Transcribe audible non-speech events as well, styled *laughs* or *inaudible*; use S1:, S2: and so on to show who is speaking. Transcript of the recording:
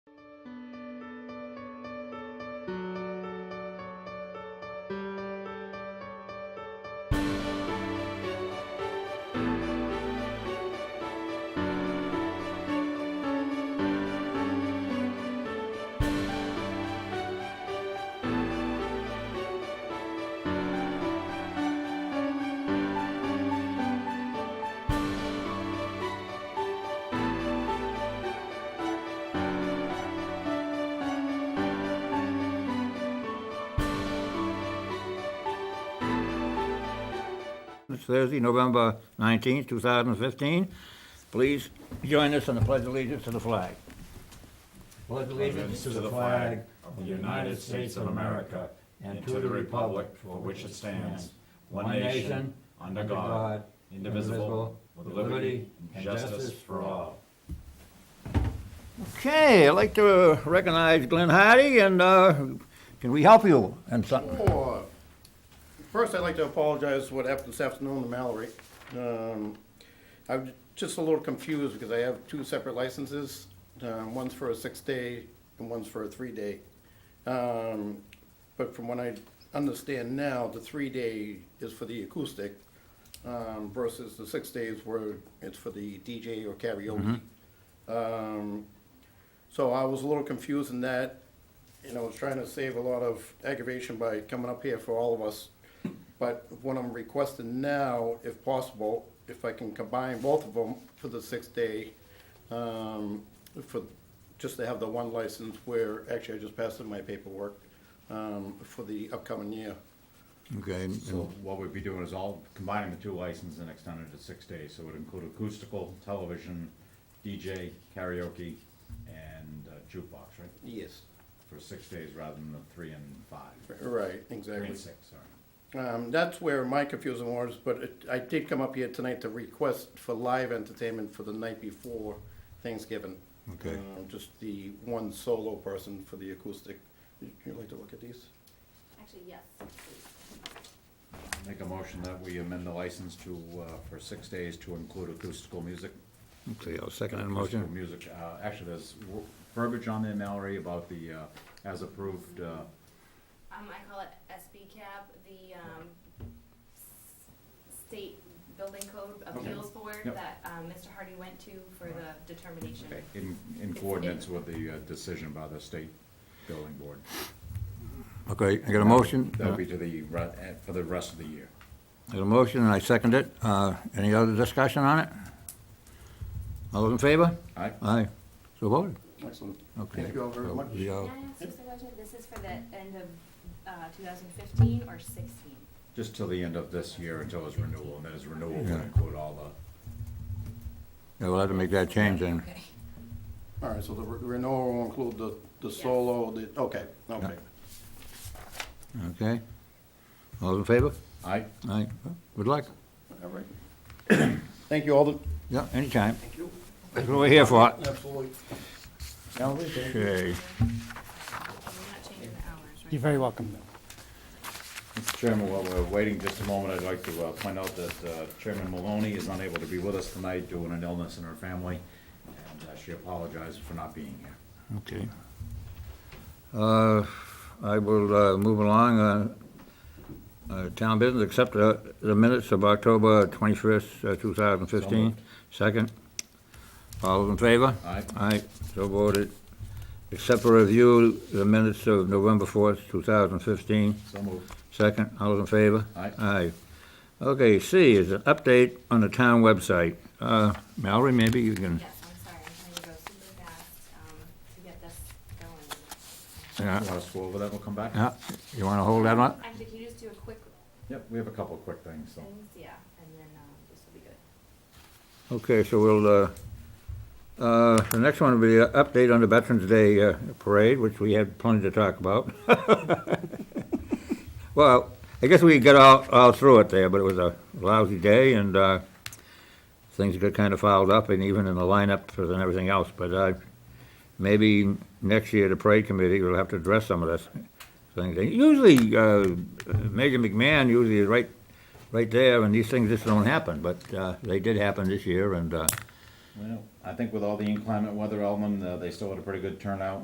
S1: Finance, Thursday, November 19, 2015. Please join us in the pledge of allegiance to the flag. Pledge
S2: allegiance to the flag of the United States of America and to the republic for which it stands, one nation, under God, indivisible, with liberty and justice for all.
S1: Okay, I'd like to recognize Glenn Hardy, and uh, can we help you in something?
S3: Sure. First, I'd like to apologize for what happened this afternoon to Mallory. Um, I'm just a little confused because I have two separate licenses. Um, One's for a six-day and one's for a three-day. Um, But from what I understand now, the three-day is for the acoustic um, versus the six days where it's for the DJ or karaoke. Um, So I was a little confused in that, you know, I was trying to save a lot of aggravation by coming up here for all of us. But what I'm requesting now, if possible, if I can combine both of them for the sixth day, um, for, just to have the one license where, actually, I just passed in my paperwork, um, for the upcoming year.
S1: Okay, and-
S2: So what we'd be doing is all combining the two licenses and extending it to six days, so it would include acoustical, television, DJ, karaoke, and uh, jukebox, right?
S3: Yes.
S2: For six days rather than the three and five,
S3: Right,
S2: three
S3: exactly.
S2: and six, sorry.
S3: Um, that's where my confusion was, but it, I did come up here tonight to request for live entertainment for the night before Thanksgiving.
S1: Okay.
S3: Um, Just the one solo person for the acoustic. Would you like to look at these?
S4: Actually, yes, please.
S2: Make a motion that we amend the license to, uh, for six days to include acoustical music.
S1: okay, I'll second that
S2: Acoustical
S1: motion.
S2: music, uh, actually, there's w- verbiage on there, Mallory, about the, uh, as approved, uh,
S4: Um, I call it SB cab, the, um, s- state building code appeals board
S2: Yep.
S4: that, um, Mr. Hardy went to for the determination.
S2: in, in coordinates with the uh, decision by the state building board.
S1: Okay, I got a motion?
S2: That'll be to the, re- eh, for the rest of the year.
S1: I got a motion, and I second it. Uh, Any other discussion on it? All those in favor?
S2: Aye?
S1: Aye. So voted.
S3: Excellent.
S1: Okay.
S3: Thank you all very
S1: So
S3: much.
S1: we
S4: May I
S1: all-
S4: ask just a question? This is for the end of, uh, two thousand fifteen or sixteen?
S2: Just till the end of this year until his renewal, and then his renewal will
S1: Yeah.
S2: include all
S1: Yeah, we'll have to make that change then.
S4: Okay.
S3: All right, so the re- renewal will include the, the solo, the, okay, okay.
S1: Okay? All those in favor?
S2: the, aye?
S1: Aye. Good luck.
S3: All right. *clears throat* Thank you, Alden.
S1: Yeah, anytime. That's what we're here for.
S3: Absolutely.
S1: Okay.
S4: And we're not changing the hours, right?
S5: You're very welcome.
S2: Mr. Chairman, while we're waiting just a moment, I'd like to uh, point out that uh, Chairman Maloney is unable to be with us tonight due to an illness in her family, and uh, she apologizes for not being here.
S1: Okay. Uh, I will uh, move along. uh, uh, Town business, accept the the minutes of October 21st, uh, 2015.
S2: moved.
S1: Second. All those in favor?
S2: Aye.
S1: Aye, so voted. Accept for review the minutes of November 4th, 2015.
S2: So moved.
S1: Second, all those in favor?
S2: Aye.
S1: Aye. Okay, C is an update on the town website. Uh, Mallory, maybe you can,
S4: Yes, I'm sorry, I'm trying to go super fast, um, to get this going.
S1: yeah,
S2: Want us to go over that? We'll come back?
S1: yeah, you wanna hold that one?
S4: Actually, can you just do a quick
S2: Yep, we have a couple of quick things, so.
S4: things? Yeah, and then, um, this will be good.
S1: Okay, so we'll, uh, uh, the next one will be an update on the Veterans Day uh, Parade, which we had plenty to talk about. *laughs* Well, I guess we got all, all through it there, but it was a lousy day and, uh, things got kind of fouled up and even in the lineup and everything else, but, uh, maybe next year the parade committee will have to address some of this things. And Usually, uh, Major McMahon usually is right, right there and these things just don't happen, but, uh, they did happen this year and, uh,
S2: Well, I think with all the inclement weather, Alman, uh, they still had a pretty good turnout,